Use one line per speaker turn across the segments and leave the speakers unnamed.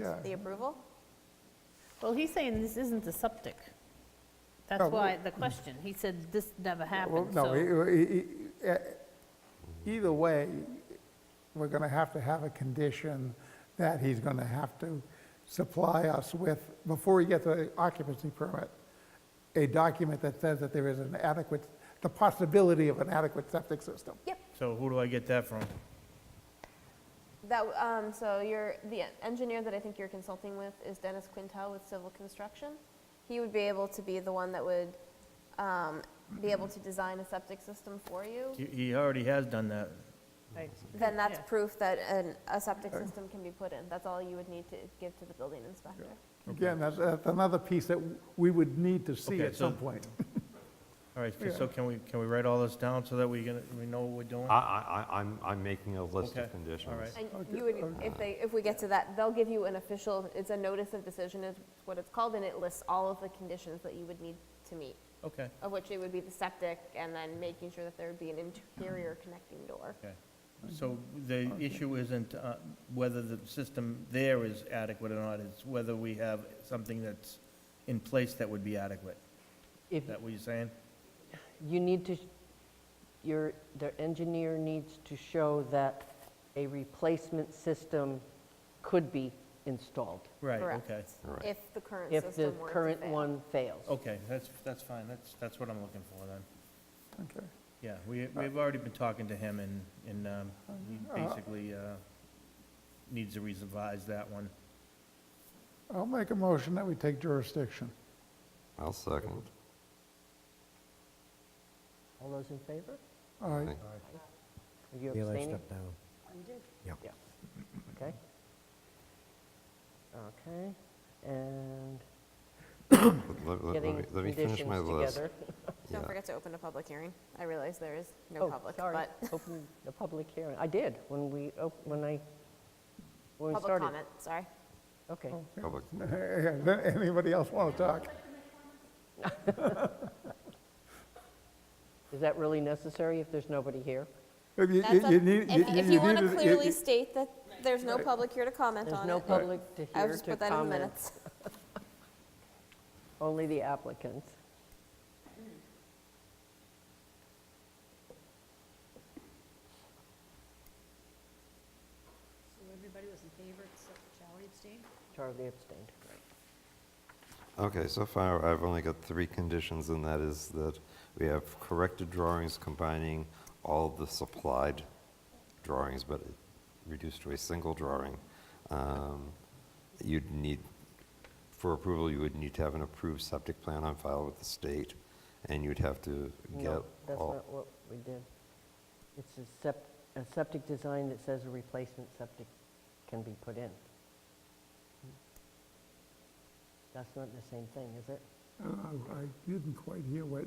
Yeah.
the approval?
Well, he's saying this isn't the septic.
No,
That's why the question. He said this never
Oh, Well,
happened,
no,
so.
e- e- e- e- either way, we're going to have to have a condition that he's going to have to supply us with, before we get the occupancy permit, a document that says that there is an adequate, the possibility of an adequate septic system.
Yep,
So who do I get that from?
that, w- um, so your, the engineer that I think you're consulting with is Dennis Quintel with Civil Construction. He would be able to be the one that would, um, be able to design a septic system for you.
He- He already has done that.
Right.
Then that's
Yeah.
proof that an, a septic system can be put in. That's all you would need to give to the building inspector.
Again, that's, that's another piece that we would need to see
Okay,
at some
so-
point.
All right, so can we, can we write all this down so that we can, we know what we're doing?
I, I, I- I'm, I'm making a list
Okay, all
of conditions.
right.
And you would, if they, if we get to that, they'll give you an official, it's a notice of decision is what it's called, and it lists all of the conditions that you would need to meet,
Okay,
of which it would be the septic, and then making sure that there would be an interior connecting door.
okay. So the issue isn't uh, whether the system there is adequate or not, it's whether we have something that's in place that would be adequate.
If
Is that what you're saying?
you need to, your, the engineer needs to show that a replacement system could be installed
Right,
Correct.
okay.
Right.
If the current
if the
system were to
current
fail.
one fails.
Oh.
Okay, that's, that's fine, that's, that's what I'm looking for then.
Okay.
Yeah, we, we've already been talking to him and, and um, he basically uh, needs to revise that one.
I'll make a motion that we take jurisdiction.
I'll second.
All those in favor?
All right,
Aye.
Are you
Eli
abstaining?
stepped down. Yeah.
Yeah, okay. Okay, and
Let- let- let
getting
me- let me
conditions
finish my list.
together.
Don't
Yeah.
forget to open a public hearing. I realize there is no
Oh,
public,
sorry,
but
open the public hearing. I did, when we, op- when I, when we
public
started.
comment, sorry.
Okay.
Oh.
Public-
anybody else want to talk?
Is that really necessary if there's nobody here?
If you-
That's
you
up-
need-
If if you want
need
to
to-
clearly state that there's no public here to comment
There's
on
no
it,
public to
I'll
hear
just
to
put that in the
comment,
minutes.
only the applicants.
So everybody was in favor except for Charlie abstained?
Charlie abstained.
Okay, so far, I've only got three conditions, and that is that we have corrected drawings combining all the supplied drawings, but it- reduced to a single drawing. Um, You'd need, for approval, you would need to have an approved septic plan on file with the state, and you'd have to get all...
No, that's
Oh.
not what we did. It's a sept, a septic design that says a replacement septic can be put in. That's not the same thing, is it?
Uh, I didn't quite hear what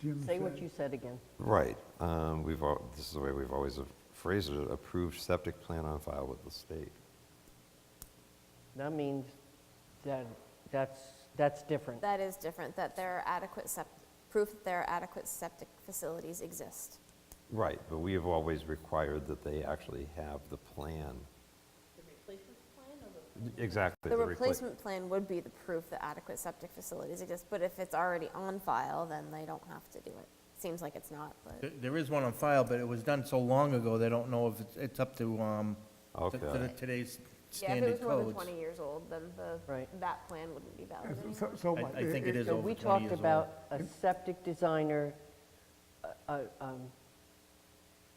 Jim
Say what
said.
you said again.
Right. um, We've, al- this is the way we've always phrased it, approved septic plan on file with the state.
That means that, that's, that's different.
That is different, that there are adequate septic, proof that there are adequate septic facilities exist.
Right, but we have always required that they actually have the plan. The replacement plan or the? Exactly.
The
repla-
replacement plan would be the proof that adequate septic facilities exist, but if it's already on file, then they don't have to do it. Seems like it's not,
There-
but
There is one on file, but it was done so long ago, they don't know if it's, it's up to, um, to- to the-
Okay.
today's
yeah, if it
standard
was more than
codes.
20 years old, then the,
Right.
that plan wouldn't be valid anymore.
Uh, So- So
I-
what? Uh,
I think it is
So
over
we
20
talked
years old.
about a septic designer, uh, uh, um,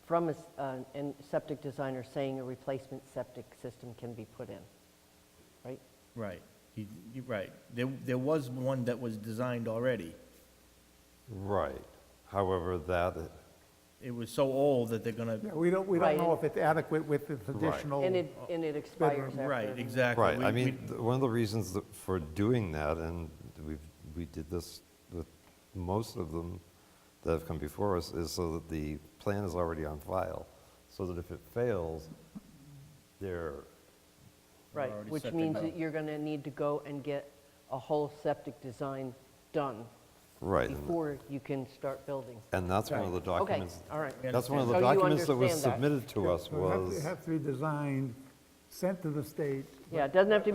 from a, s- uh, an septic designer saying a replacement septic system can be put in, right?
Right, You- you're right. There, there was one that was designed already.
Right. However, that,
It was so old that they're
uh, Yeah,
gonna,
we don't, we don't know
Right.
if it's adequate with this additional.
And it, and it expires after.
Oh, right, exactly.
right,
We-
I
we-
mean, th- one of the reasons that- for doing that, and we, we did this with most of them that have come before us, is so that the plan is already on file, so that if it fails, they're
Right,
Already
which
set to
means
go.
that you're going to need to go and get a whole septic design done
Right, and-
before you can start building.
and that's one of the
Okay,
documents,
all right.
that's one of the
So you
documents that was
understand that.
submitted to us
So it has-
was,
It has to be designed
sent to the state
Yeah, it doesn't have to